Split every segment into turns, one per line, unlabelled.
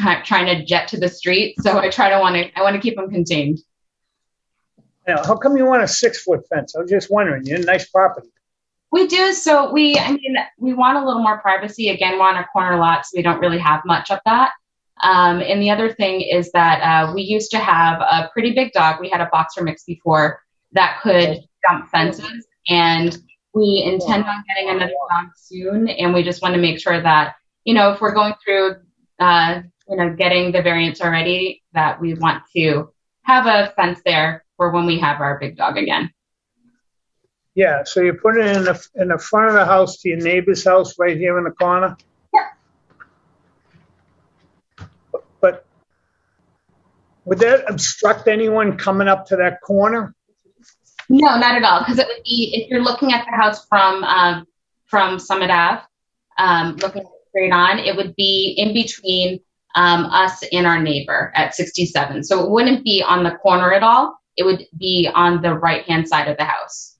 trying to jet to the street. So I try to want to, I want to keep them contained.
Now, how come you want a six-foot fence? I was just wondering, you're in nice property.
We do. So we, I mean, we want a little more privacy. Again, we're on a corner lot, so we don't really have much of that. Um, and the other thing is that uh, we used to have a pretty big dog. We had a boxer mix before that could jump fences, and we intend on getting another dog soon. And we just want to make sure that you know if we're going through, uh, you know, getting the variants already, that we want to have a fence there for when we have our big dog again.
Yeah, so you put it in the, in the front of the house to your neighbor's house right here in the corner?
Yeah.
But would that obstruct anyone coming up to that corner?
No, not at all. Because it would be if you're looking at the house from um, from Summit Ave, um, looking straight on, it would be in between um, us and our neighbor at 67. So it wouldn't be on the corner at all. It would be on the right hand side of the house.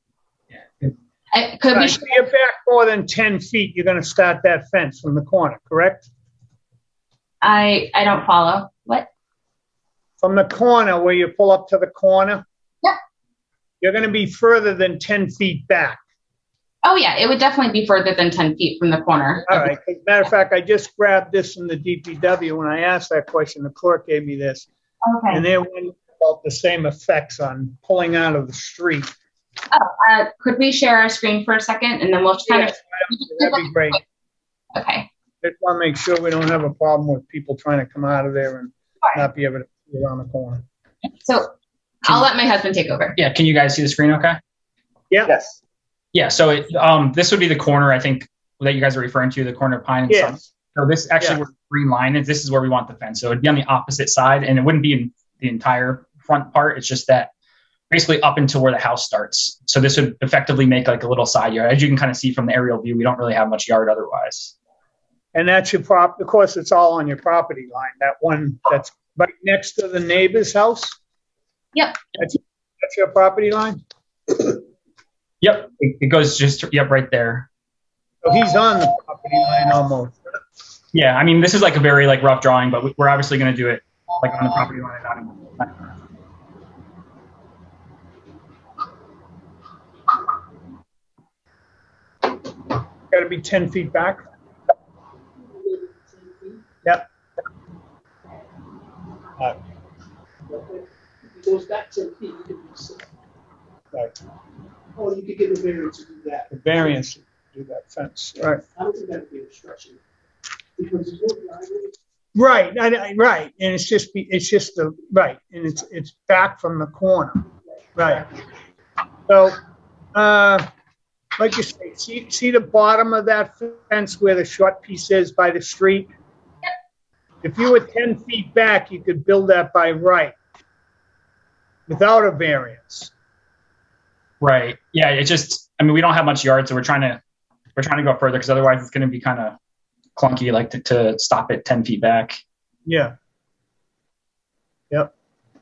It could be.
If you're back more than 10 feet, you're gonna start that fence from the corner, correct?
I I don't follow. What?
From the corner where you pull up to the corner?
Yeah.
You're gonna be further than 10 feet back.
Oh yeah, it would definitely be further than 10 feet from the corner.
All right. As a matter of fact, I just grabbed this from the DPW. When I asked that question, the clerk gave me this. And
Okay.
they were about the same effects on pulling out of the street.
Uh, could we share our screen for a second and then we'll kind
Yes, That'd be great.
of okay.
Just want to make sure we don't have a problem with people trying to come out of there and
Sure.
not be able to see around the corner.
So I'll let my husband take over.
Yeah, can you guys see the screen okay?
Yeah,
Yes.
Yeah, so it, um, this would be the corner, I think, that you guys are referring to, the corner of Pine and Summit.
yes,
So this actually
Yeah.
where the green line is, this is where we want the fence. So it'd be on the opposite side and it wouldn't be in the entire front part. It's just that basically up until where the house starts. So this would effectively make like a little side yard. As you can kind of see from the aerial view, we don't really have much yard otherwise.
and that's your prop, of course, it's all on your property line, that one that's right next to the neighbor's house?
Yep.
That's, that's your property line?
Yep, it, it goes just, yep, right there.
So he's on the property line almost.
Yeah, I mean, this is like a very like rough drawing, but we- we're obviously going to do it like on the property line and not in
Gotta be ten feet back? Yep,
If it goes back ten feet, you can be safe.
right,
Or you could get a variance to do that.
the variance, to do that fence, right.
I don't think that'd be an obstruction. Because it's not liable.
Right, I, I- right, and it's just, be- it's just the, right, and it's, it's back from the corner, right. So, uh, like you say, see, see the bottom of that fence where the short piece is by the street? If you were ten feet back, you could build that by right, without a variance.
Right. Yeah. It just. I mean, we don't have much yard, so we're trying to we're trying to go further because otherwise it's going to be kind of clunky, like to, to stop it ten feet back.
Yeah. Yep.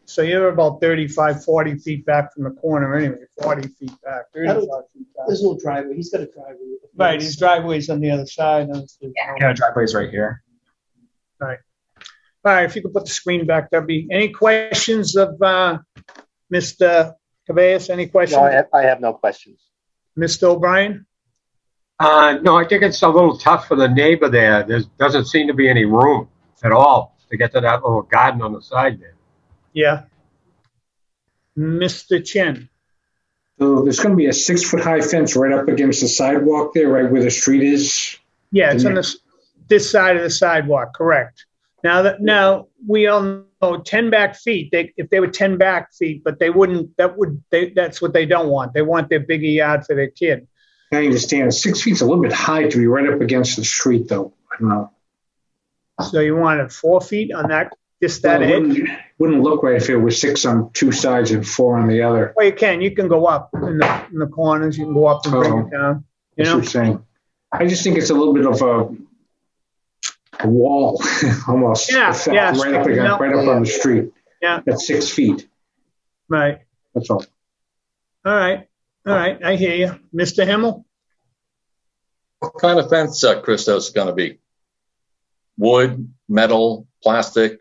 So you're about 35, 40 feet back from the corner anyway, forty feet back, thirty-five feet back.
There's no driveway. He's got a driveway. with a fence.
Right, his driveway's on the other side. and it's-
Yeah, driveway's right here.
All right, if you could put the screen back, that'd be, any questions of uh, Mr. Cabeas, any
No, I
questions?
have, I have no questions.
Mr. O'Brien?
Uh, no, I think it's a little tough for the neighbor there. There doesn't seem to be any room at all to get to that little garden on the side there.
Yeah. Mr. Chin?
So there's going to be a six-foot-high fence right up against the sidewalk there, right where the street is.
Yeah, it's on this, this side of the sidewalk, correct. Now, that now, we all know 10 back feet, they, if they were 10 back feet, but they wouldn't, that would, they, that's what they don't want. They want their biggie yard for their kid.
I understand, six feet's a little bit high to be right up against the street, though. I don't know.
So you want it four feet on that, just that
Well, it
edge?
wouldn't- Wouldn't look right if it was six on two sides and four on the other.
Well, you can, you can go up in the, in the corners, you can go up and
Oh.
bring it down, you
That's
know?
what I'm saying. I just think it's a little bit of a, a wall, almost.
Yeah,
effect,
yeah,
Right up
no.
against, right up on the street.
Yeah.
At six feet,
Right,
that's all.
all right, all right, I hear you. Mr. Himmel?
What kind of fence, uh, Christos, is gonna be? wood, metal, plastic,